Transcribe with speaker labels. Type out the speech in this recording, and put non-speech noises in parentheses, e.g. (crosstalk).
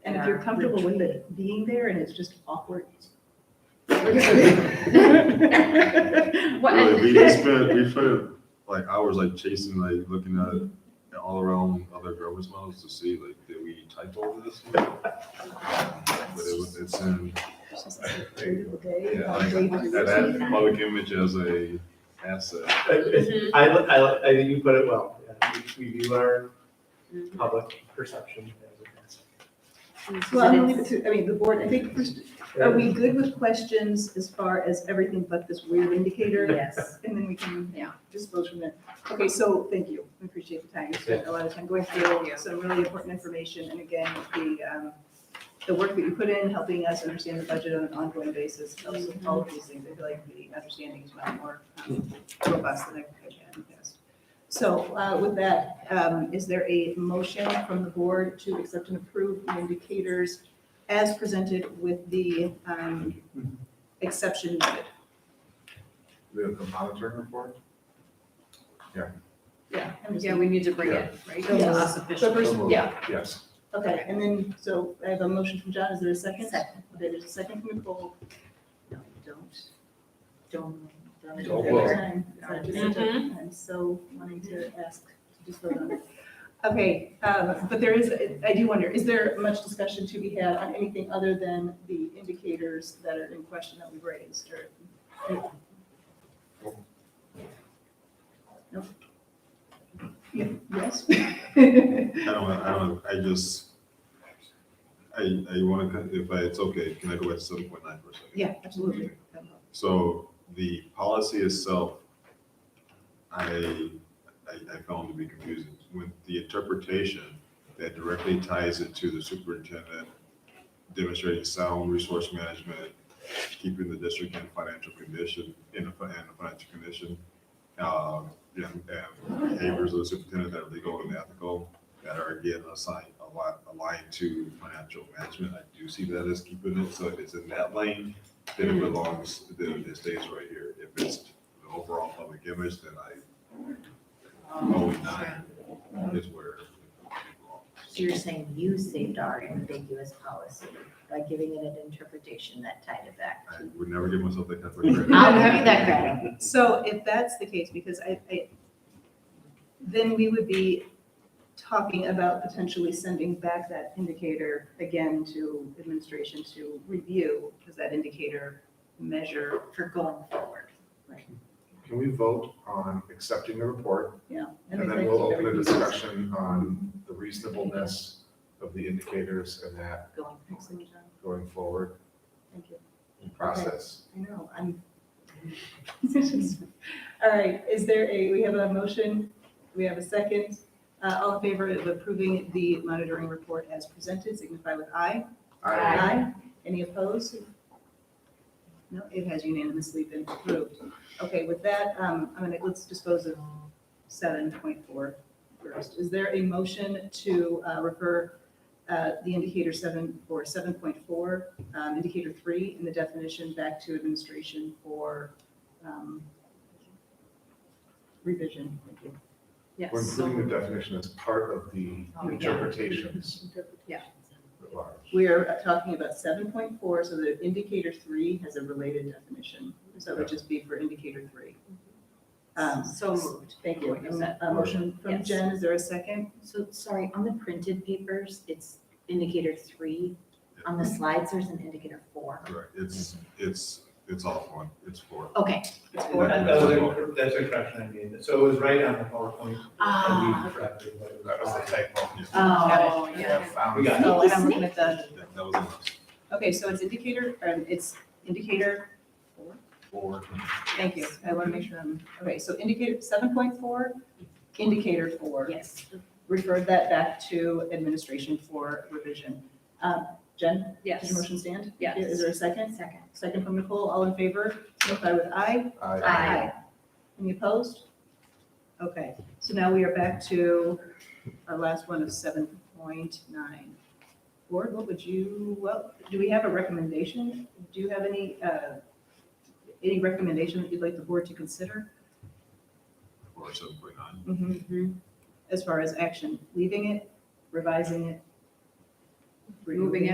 Speaker 1: if you're comfortable with it being there and it's just awkward.
Speaker 2: What-
Speaker 3: Really, we, we spent, we spent like hours like chasing, like looking at, at all around other garbage models to see like, did we type
Speaker 1: (laughs)
Speaker 3: over this? one? But it was, it's in, yeah, like, that, that public image as a asset.
Speaker 2: Mhm.
Speaker 4: I, li- I, li- I think you put it well. Yeah, We we view our
Speaker 1: Mm-hmm.
Speaker 4: public perception as
Speaker 1: Well, I'm gonna leave it to, I mean, the board, I think, first,
Speaker 4: a.
Speaker 1: are we good with questions as far as everything but this weird indicator?
Speaker 5: Yes.
Speaker 1: And then we can, yeah, just go from there. Okay, so, thank you, we appreciate the time, you spent a lot of time going through
Speaker 5: Yeah.
Speaker 1: some really important information, and again, the, um, the work that you put in, helping us understand the budget on an ongoing basis, helps with all of these things, I feel like the understanding is now more um, robust than I could have in the past. So, uh, with that, um, is there a motion from the board to accept and approve the indicators as presented with the, um, exception noted?
Speaker 3: The, the monitoring report?
Speaker 1: Yeah. I'm just-
Speaker 5: Yeah, we need to bring it, right, to
Speaker 1: Yes.
Speaker 5: us
Speaker 1: So
Speaker 5: officially.
Speaker 1: first, yeah,
Speaker 3: Yes.
Speaker 1: Okay, and then, so I have a motion from John, is there a second? Second. Okay, there's a second from Nicole.
Speaker 5: No, Don't, don't, don't.
Speaker 3: Don't
Speaker 1: Every
Speaker 3: vote.
Speaker 1: time, I just-
Speaker 5: Mhm.
Speaker 1: I'm so wanting to ask, to just vote on it. Okay, um, but there is, I do wonder, is there much discussion to be had on anything other than the indicators that are in question that we've raised, or? No? Yeah, Yes? (laughs)
Speaker 3: I don't, want- I don't, I just, I, I want to, if I, it's okay, can I go back to seven point nine for a second?
Speaker 1: Yeah, absolutely.
Speaker 3: So the policy itself, I, I, I found to be confusing. When the interpretation that directly ties it to the superintendent demonstrating sound resource management, keeping the district in financial condition, in a, fi- in a financial condition, um, and, and behaviors of the superintendent that are legal and ethical, that are again assigned, aligned, aligned to financial management. I do see that as keeping it, so if it's in that lane, then it belongs, then it stays right here. If it's the overall public image, then I, oh, nine is where.
Speaker 6: So you're saying you saved our ambiguous policy by giving it an interpretation that tied it back
Speaker 3: I
Speaker 6: to.
Speaker 3: would never give myself that type of credit.
Speaker 6: I'll give you that credit.
Speaker 1: So if that's the case, because I, I, then we would be talking about potentially sending back that indicator again to administration to review, because that indicator measure,
Speaker 6: For going forward.
Speaker 7: Can we vote on accepting the report?
Speaker 1: yeah.
Speaker 7: And then we'll open a discussion on the reasonableness of the indicators and that
Speaker 1: Going, thank you.
Speaker 7: going forward process.
Speaker 1: I know, I'm. (laughs) All right, is there a, we have a motion, we have a second. Uh, all in favor of approving the monitoring report as presented, signify with aye.
Speaker 7: I,
Speaker 1: Aye. Any opposed? No, it has unanimously been approved. Okay, with that, um, I'm gonna, let's dispose of seven point four first. Is there a motion to, uh, refer, uh, the indicator seven, or seven point four, um, indicator three in the definition back to administration for, um, revision? Thank you.
Speaker 5: Yes.
Speaker 7: we're including the definition as part of the
Speaker 5: Oh, yeah.
Speaker 7: interpretations
Speaker 5: Yeah.
Speaker 7: at large.
Speaker 1: We are talking about seven point four, so the indicator three has a related definition, so it would just be for indicator three. Um,
Speaker 5: So moved.
Speaker 1: Thank you.
Speaker 5: What you said.
Speaker 1: A motion from
Speaker 5: Yes.
Speaker 1: Jen, is there a second?
Speaker 6: So, sorry, on the printed papers, it's indicator three. On the slides, there's an indicator four.
Speaker 3: Right, it's, it's, it's all one, it's four.
Speaker 6: Okay.
Speaker 1: It's
Speaker 4: And
Speaker 1: four.
Speaker 4: that- that was a- That's a correction I made. So it was right on the PowerPoint.
Speaker 1: Ah,
Speaker 4: that we corrected, but it
Speaker 7: That was the
Speaker 4: was-
Speaker 7: typo.
Speaker 5: Oh,
Speaker 1: Got it.
Speaker 5: yeah.
Speaker 4: We
Speaker 7: Found-
Speaker 4: got it.
Speaker 1: Oh, and I'm looking at the,
Speaker 3: That that was enough.
Speaker 1: okay, so it's indicator, um, it's indicator,
Speaker 3: Four.
Speaker 1: thank you, I want to make sure I'm, okay, so indicator seven point four, indicator four.
Speaker 6: Yes.
Speaker 1: Referred that back to administration for revision. Um, Jen, does your
Speaker 5: Yes.
Speaker 1: motion stand?
Speaker 5: Yes.
Speaker 1: Is there a second?
Speaker 6: Second.
Speaker 1: Second from Nicole, all in favor, signify with aye.
Speaker 7: I,
Speaker 6: Aye.
Speaker 1: Any opposed? Okay, so now we are back to our last one of seven point nine. Board, what would you, well, do we have a recommendation? Do you have any, uh, any recommendation that you'd like the board to consider?
Speaker 3: Or seven point nine.
Speaker 1: As far as action, leaving it, revising it?
Speaker 5: Moving it.